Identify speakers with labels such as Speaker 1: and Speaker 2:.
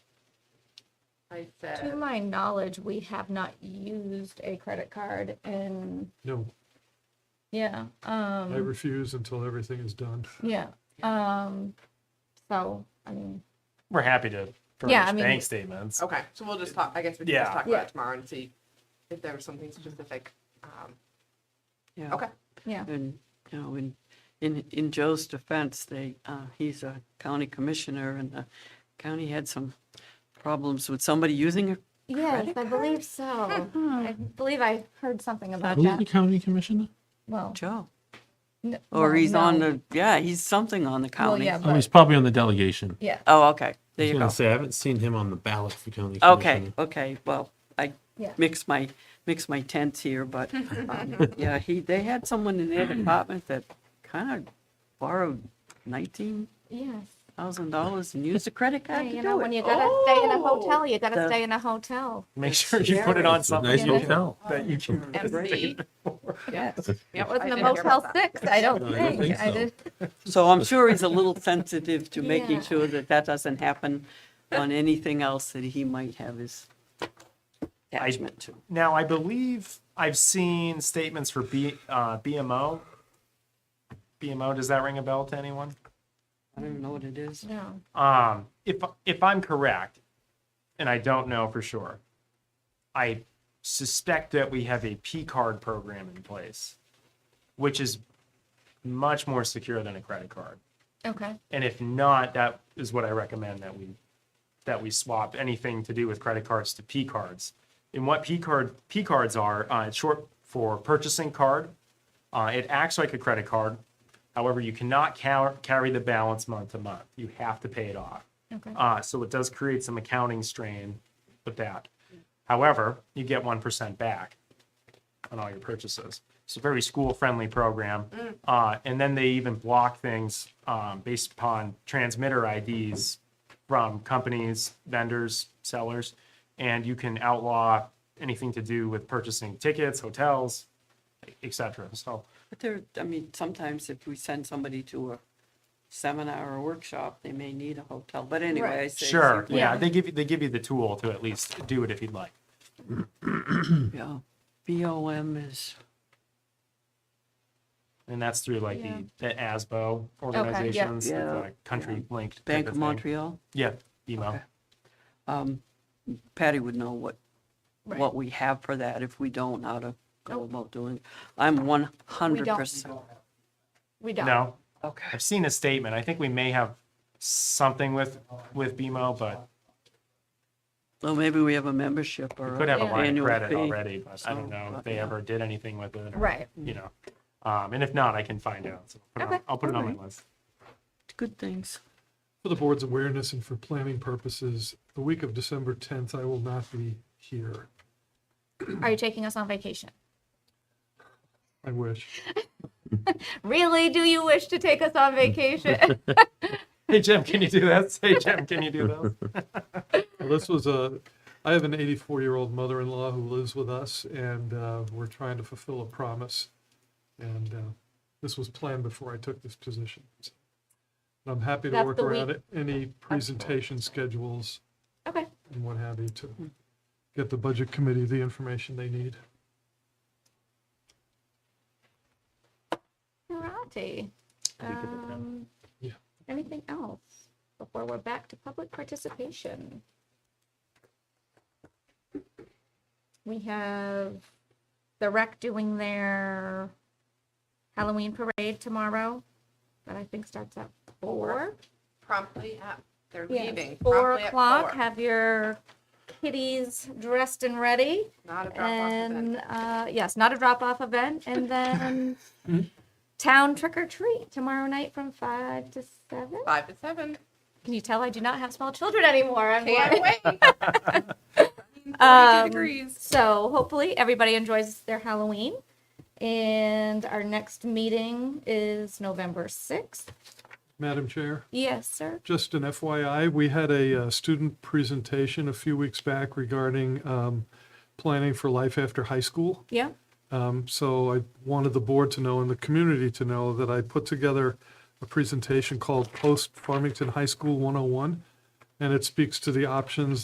Speaker 1: I
Speaker 2: To
Speaker 1: said,
Speaker 2: my knowledge, we have not used a credit card and,
Speaker 3: No,
Speaker 2: yeah,
Speaker 3: I
Speaker 2: um,
Speaker 3: refuse until everything is done.
Speaker 2: yeah, um, so, I mean,
Speaker 4: We're happy to furnish
Speaker 2: Yeah, I mean-
Speaker 4: bank statements.
Speaker 1: okay, so we'll just talk, I guess we can just
Speaker 4: Yeah.
Speaker 1: talk about
Speaker 2: Yeah.
Speaker 1: it tomorrow and see if there was something specific. Um,
Speaker 5: Yeah.
Speaker 1: Okay,
Speaker 2: yeah,
Speaker 5: And, you know, in, in, in Joe's defense, they, uh, he's a county commissioner and the county had some problems with somebody using a
Speaker 2: yes, I believe so. Hmm. I believe I heard something about
Speaker 6: Who's the
Speaker 2: that,
Speaker 6: county commissioner?
Speaker 2: well.
Speaker 5: Joe.
Speaker 2: n-
Speaker 5: Or
Speaker 2: well,
Speaker 5: he's on
Speaker 2: no.
Speaker 5: the, yeah, he's something on the
Speaker 2: Well,
Speaker 5: county.
Speaker 2: yeah,
Speaker 6: Oh, he's
Speaker 2: but,
Speaker 6: probably on the delegation.
Speaker 2: yeah,
Speaker 5: Oh, okay. There
Speaker 6: I was
Speaker 5: you
Speaker 6: gonna
Speaker 5: go.
Speaker 6: say, I haven't seen him on the ballot for county
Speaker 5: Okay,
Speaker 6: commissioner.
Speaker 5: okay. Well, I
Speaker 2: Yeah.
Speaker 5: mix my, mix my tents here, but, um, yeah, he, they had someone in their department that kind of borrowed nineteen
Speaker 2: yes.
Speaker 5: thousand dollars and used a credit
Speaker 2: Hey,
Speaker 5: card to
Speaker 2: You know,
Speaker 5: do
Speaker 2: when
Speaker 5: it. Oh.
Speaker 2: you gotta stay in a hotel, you
Speaker 5: The-
Speaker 2: gotta stay in a hotel.
Speaker 4: Make sure you put it on
Speaker 6: It's a
Speaker 4: something
Speaker 6: Nice
Speaker 2: Yeah.
Speaker 6: hotel.
Speaker 4: that you can.
Speaker 1: MC.
Speaker 5: Yeah.
Speaker 1: Yep,
Speaker 2: It wasn't
Speaker 1: I
Speaker 2: a
Speaker 1: didn't hear
Speaker 2: Motel
Speaker 1: about that.
Speaker 2: Six, I don't
Speaker 6: No, I don't
Speaker 2: think,
Speaker 6: think
Speaker 2: I
Speaker 6: so.
Speaker 2: did,
Speaker 5: So I'm sure he's a little sensitive to
Speaker 2: Yeah.
Speaker 5: making sure that that doesn't happen on anything else that he might have his attachment to.
Speaker 4: Now, I believe I've seen statements for B, uh, BMO. BMO, does that ring a bell to anyone?
Speaker 5: I don't even know what it is.
Speaker 2: no.
Speaker 4: Um, if if I'm correct, and I don't know for sure, I suspect that we have a P card program in place, which is much more secure than a credit card.
Speaker 2: Okay,
Speaker 4: And if not, that is what I recommend that we that we swap anything to do with credit cards to P cards. And what P card P cards are, uh, it's short for purchasing card. Uh, it acts like a credit card. However, you cannot car- carry the balance month to month. You have to pay it off.
Speaker 2: okay,
Speaker 4: Uh, so it does create some accounting strain with that. However, you get 1% back on all your purchases. It's a very school friendly program.
Speaker 2: Mm.
Speaker 4: Uh, and then they even block things um, based upon transmitter IDs from companies, vendors, sellers. And you can outlaw anything to do with purchasing tickets, hotels, etc. So,
Speaker 5: But there, I mean, sometimes if we send somebody to a seminar or workshop, they may need a hotel, but anyway, I say.
Speaker 4: sure, yeah,
Speaker 2: Yeah.
Speaker 4: they give you they give you the tool to at least do it if you'd like.
Speaker 5: yeah. BOM is,
Speaker 4: And that's through like
Speaker 2: Yeah.
Speaker 4: the, the ASBO organizations,
Speaker 5: Yeah.
Speaker 4: the
Speaker 5: Yeah.
Speaker 4: country linked. type
Speaker 5: Bank of
Speaker 4: thing.
Speaker 5: Montreal.
Speaker 4: Yeah, BMO.
Speaker 5: Okay. Um, Patty would know what,
Speaker 2: Right.
Speaker 5: what we have for that. If we don't, how to go about doing. it. I'm one hundred percent.
Speaker 2: we don't.
Speaker 4: No,
Speaker 5: Okay.
Speaker 4: I've seen a statement. I think we may have something with, with BMO, but
Speaker 5: Well, maybe we have a membership or.
Speaker 4: we could have a
Speaker 2: Yeah.
Speaker 4: line of
Speaker 5: Annual
Speaker 4: credit
Speaker 5: fee.
Speaker 4: already, but I
Speaker 5: So,
Speaker 4: don't know if
Speaker 5: but
Speaker 4: they
Speaker 5: yeah.
Speaker 4: ever did anything with it. or,
Speaker 2: Right.
Speaker 4: You know, um, and if not, I can find out. So put it on-
Speaker 2: Okay,
Speaker 4: I'll put it on
Speaker 5: alright.
Speaker 4: my list.
Speaker 5: Good things.
Speaker 3: For the board's awareness and for planning purposes, the week of December tenth, I will not be here.
Speaker 2: Are you taking us on vacation?
Speaker 3: I wish.
Speaker 2: Really? Do you wish to take us on vacation?
Speaker 4: Hey, Jim, can you do this? Hey, Jim, can you do this?
Speaker 3: Well, this was a, I have an eighty-four-year-old mother-in-law who lives with us and, uh, we're trying to fulfill a promise. And, uh, this was planned before I took this position. And I'm happy to
Speaker 2: That's
Speaker 3: work
Speaker 2: the week-
Speaker 3: around it- any presentation schedules
Speaker 2: okay.
Speaker 3: and what have you to get the budget committee the information they need.
Speaker 2: Karate. Um,
Speaker 3: Yeah.
Speaker 2: Anything else before we're back to public participation? We have the rec doing their Halloween parade tomorrow that I think starts at four.
Speaker 1: promptly at, they're
Speaker 2: Yeah,
Speaker 1: leaving.
Speaker 2: Four
Speaker 1: promptly at
Speaker 2: o'clock.
Speaker 1: four.
Speaker 2: Have your kitties dressed and ready.
Speaker 1: Not a drop off event.
Speaker 2: and uh, yes, not a drop off event, and then town trick or treat tomorrow night from five to seven.
Speaker 1: Five to seven.
Speaker 2: Can you tell I do not have small children anymore? I'm
Speaker 1: Can't
Speaker 2: like-
Speaker 1: wait. 42
Speaker 2: Um,
Speaker 1: degrees.
Speaker 2: So hopefully everybody enjoys their Halloween, and our next meeting is November sixth.
Speaker 3: Madam Chair?
Speaker 2: Yes, sir.
Speaker 3: just an FYI, we had a uh, student presentation a few weeks back regarding um, planning for life after high school.
Speaker 2: Yeah.
Speaker 3: Um, So I wanted the board to know and the community to know that I put together a oh presentation called Post Farmington High School 101, and it speaks to the options